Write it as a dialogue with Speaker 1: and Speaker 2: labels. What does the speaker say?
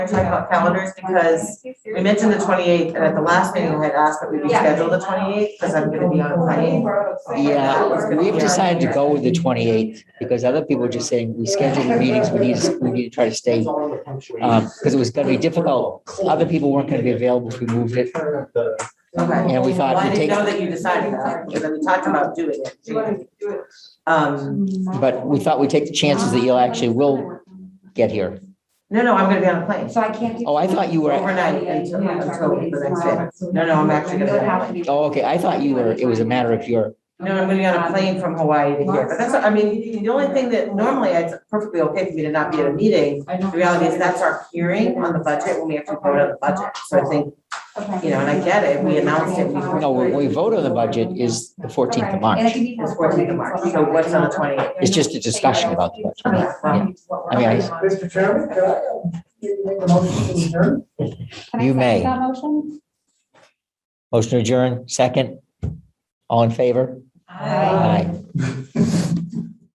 Speaker 1: We're talking about calendars because we mentioned the twenty-eighth, and at the last meeting, I had asked that we reschedule the twenty-eighth, because I'm gonna be on a plane.
Speaker 2: Yeah, we've decided to go with the twenty-eighth because other people are just saying, we scheduled the meetings, we need, we need to try to stay. Um, because it was gonna be difficult. Other people weren't gonna be available if we moved it
Speaker 1: Okay.
Speaker 2: and
Speaker 1: Well,
Speaker 2: we thought
Speaker 1: I
Speaker 2: to take,
Speaker 1: didn't know that you decided that, because we talked about doing it. Um,
Speaker 2: but we thought we'd take the chances that you'll actually will get here.
Speaker 1: no, no, I'm gonna be on a plane.
Speaker 3: So I can't do.
Speaker 2: Oh, I thought you were,
Speaker 1: Overnight until, until the next day. No, no, I'm actually gonna be on a plane.
Speaker 2: oh, okay, I thought you were, it was a matter of your,
Speaker 1: No, I'm gonna be on a plane from Hawaii to here, but that's, I mean, the only thing that normally it's perfectly okay for me to not be at a meeting. The reality is that's our hearing on the budget when we have to vote on the budget, so I think, you know, and I get it, we announced it. we-
Speaker 2: no, we we vote on the budget is the fourteenth of March.
Speaker 1: It's fourteenth of March, so what's on the twenty eighth?
Speaker 2: It's just a discussion about the budget. I mean, I-
Speaker 4: Mr. Chairman, can I, uh, make a motion to adjourn?
Speaker 2: You may.
Speaker 3: That motion?
Speaker 2: Motion to adjourn. second. All in favor? Aye.